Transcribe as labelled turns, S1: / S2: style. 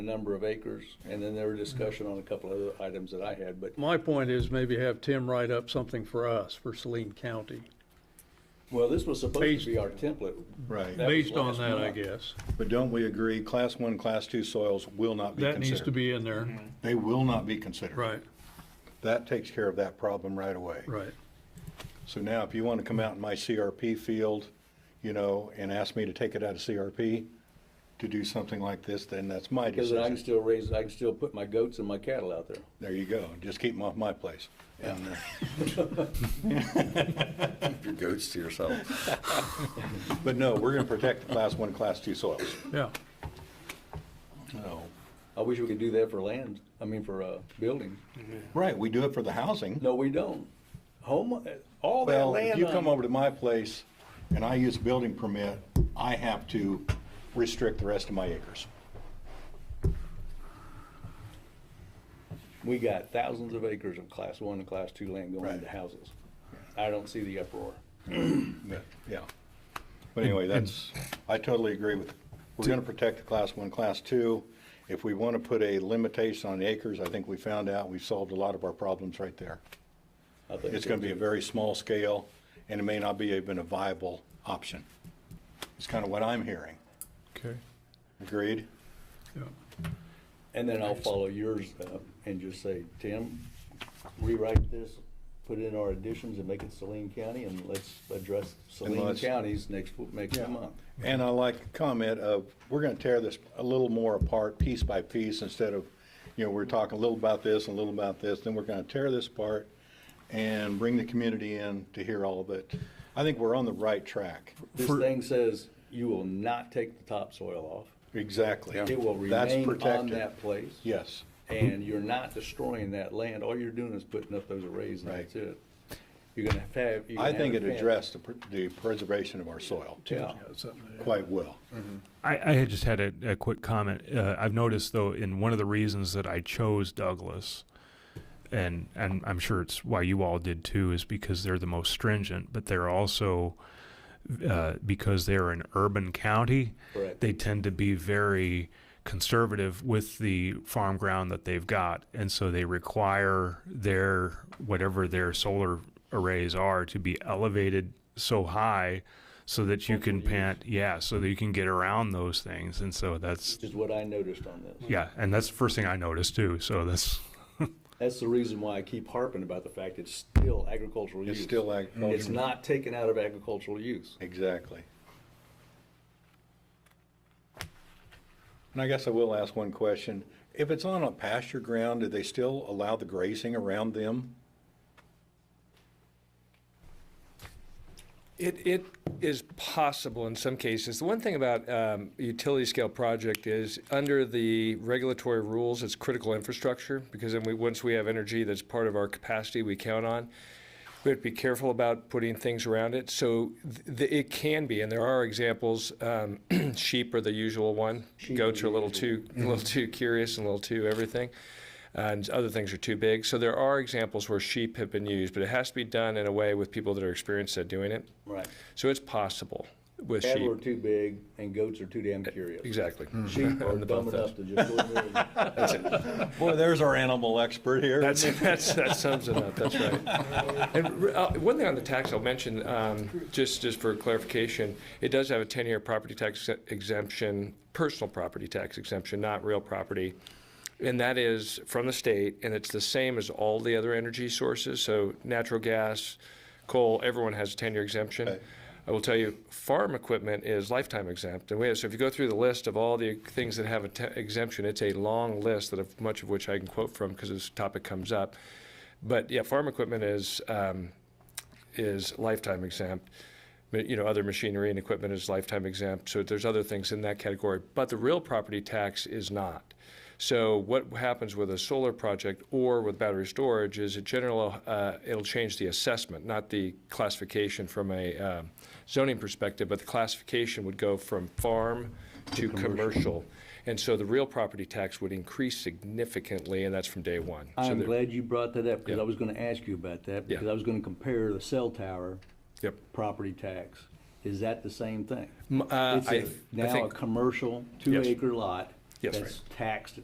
S1: number of acres, and then there were discussion on a couple of other items that I had, but,
S2: My point is maybe have Tim write up something for us, for Saline County,
S1: well, this was supposed
S2: Based-
S1: to be our template.
S3: Right.
S1: That was
S2: based on
S1: last
S2: that, I
S1: month.
S2: guess.
S3: But don't we agree, class one, class two soils will not be
S2: That needs to
S3: considered?
S2: be in there,
S3: They will not be considered.
S2: right,
S3: That takes care of that problem right away.
S2: right.
S3: So now, if you want to come out in my CRP field, you know, and ask me to take it out of CRP to do something like this, then that's my
S1: Because then I can
S3: decision.
S1: still raise, I can still put my goats and my cattle out there.
S3: There you go, just keep them off my place. And, uh,
S4: Your goats to yourself.
S3: But no, we're going to protect the class one, class two soils.
S2: Yeah,
S3: No.
S1: I wish we could do that for land, I mean, for, uh, building.
S3: Right, we do it for the housing.
S1: No, we don't. Home, all that
S3: Well, if
S1: land.
S3: you come
S1: on-
S3: over to my place and I use building permit, I have to restrict the rest of my acres.
S1: We got thousands of acres of class one and class two land going
S3: Right.
S1: into houses. I don't see the uproar.
S3: But, Yeah. But anyway, that's, I totally agree with, we're gonna protect the class one, class two. If we wanna put a limitation on acres, I think we found out, we've solved a lot of our problems right there.
S1: I think
S3: It's gonna be a very small scale, and it may not be even a viable option. It's kind of what I'm hearing.
S2: okay,
S3: Agreed?
S2: yeah.
S1: And then I'll follow yours up and just say, Tim, rewrite this, put in our additions and make it Saline County and let's address Saline
S3: let's-
S1: counties next, w- next month.
S3: And I like the comment of, we're gonna tear this a little more apart, piece by piece, instead of, you know, we're talking a little about this and a little about this, then we're gonna tear this apart and bring the community in to hear all of it. I think we're on the right track.
S1: This
S2: For-
S1: thing says you will not take the topsoil off.
S3: Exactly.
S1: It will
S3: That's
S1: remain on
S3: protected.
S1: that place.
S3: Yes,
S1: And you're not destroying that land. All you're doing is putting up those arrays and
S3: Right.
S1: that's it. You're gonna have. you're
S3: I
S1: gonna
S3: think
S1: have
S3: it
S1: a fence.
S3: addressed the pr- the preservation of our soil
S1: Yeah.
S3: quite well.
S5: I, I had just had a, a quick comment. Uh, I've noticed though, in one of the reasons that I chose Douglas, and and I'm sure it's why you all did too, is because they're the most stringent, but they're also uh, because they're an urban county.
S1: Correct.
S5: They tend to be very conservative with the farm ground that they've got, and so they require their whatever their solar arrays are to be elevated so high so that you can pant yeah so that you can get around those things and so that's
S1: Which is what I noticed on this.
S5: yeah and that's the first thing i noticed too so that's
S1: That's the reason why I keep harping about the fact it's still agricultural use.
S3: It's still
S1: It's
S3: agricultural,
S1: not taken out of agricultural use.
S3: exactly. And I guess I will ask one question. If it's on a pasture ground, do they still allow the grazing around them?
S6: It, it is possible in some cases. The one thing about um, utility scale project is, under the regulatory rules, it's critical infrastructure, because then we, once we have energy that's part of our capacity we count on, we have to be careful about putting things around it. So th- th- it can be, and there are examples, um, sheep are the usual one. Goats are a little too, a little too curious and a little too everything and other things are too big. So there are examples where sheep have been used, but it has to be done in a way with people that are experienced at doing it.
S1: Right.
S6: So it's possible with
S1: Cattle are
S6: sheep.
S1: too big and goats are too damn curious.
S6: Eh, Exactly.
S1: Sheep are
S6: And
S1: dumb
S6: above
S1: enough to just go in there and
S3: Boy, there's our animal expert here.
S6: That's, that's, that sums it up, that's right. And uh, one thing on the tax I'll mention, um, just, just for clarification, it does have a 10-year property tax exemption, personal property tax exemption, not real property. And that is from the state, and it's the same as all the other energy sources, so natural gas, coal, everyone has a 10-year exemption. I will tell you, farm equipment is lifetime exempt, and we have, so if you go through the list of all the things that have a te- exemption, it's a long list that of, much of which I can quote from because this topic comes up. But yeah, farm equipment is, um, is lifetime exempt. Ma- You know, other machinery and equipment is lifetime exempt, so there's other things in that category. But the real property tax is not. So what happens with a solar project or with battery storage is it general, uh, it'll change the assessment, not the classification from a um, zoning perspective, but the classification would go from farm to commercial. And so the real property tax would increase significantly, and that's from day one. So
S1: I'm
S6: there-
S1: glad you brought that up, because
S6: Yeah.
S1: I was gonna ask you about that,
S6: Yeah.
S1: because I was gonna compare the cell tower.
S6: Yep.
S1: Property tax, is that the same thing?
S6: M- uh,
S1: It's a-
S6: I- I
S1: Now a
S6: think-
S1: commercial,
S6: Yes.
S1: two-acre lot,
S6: Yes, right.
S1: That's taxed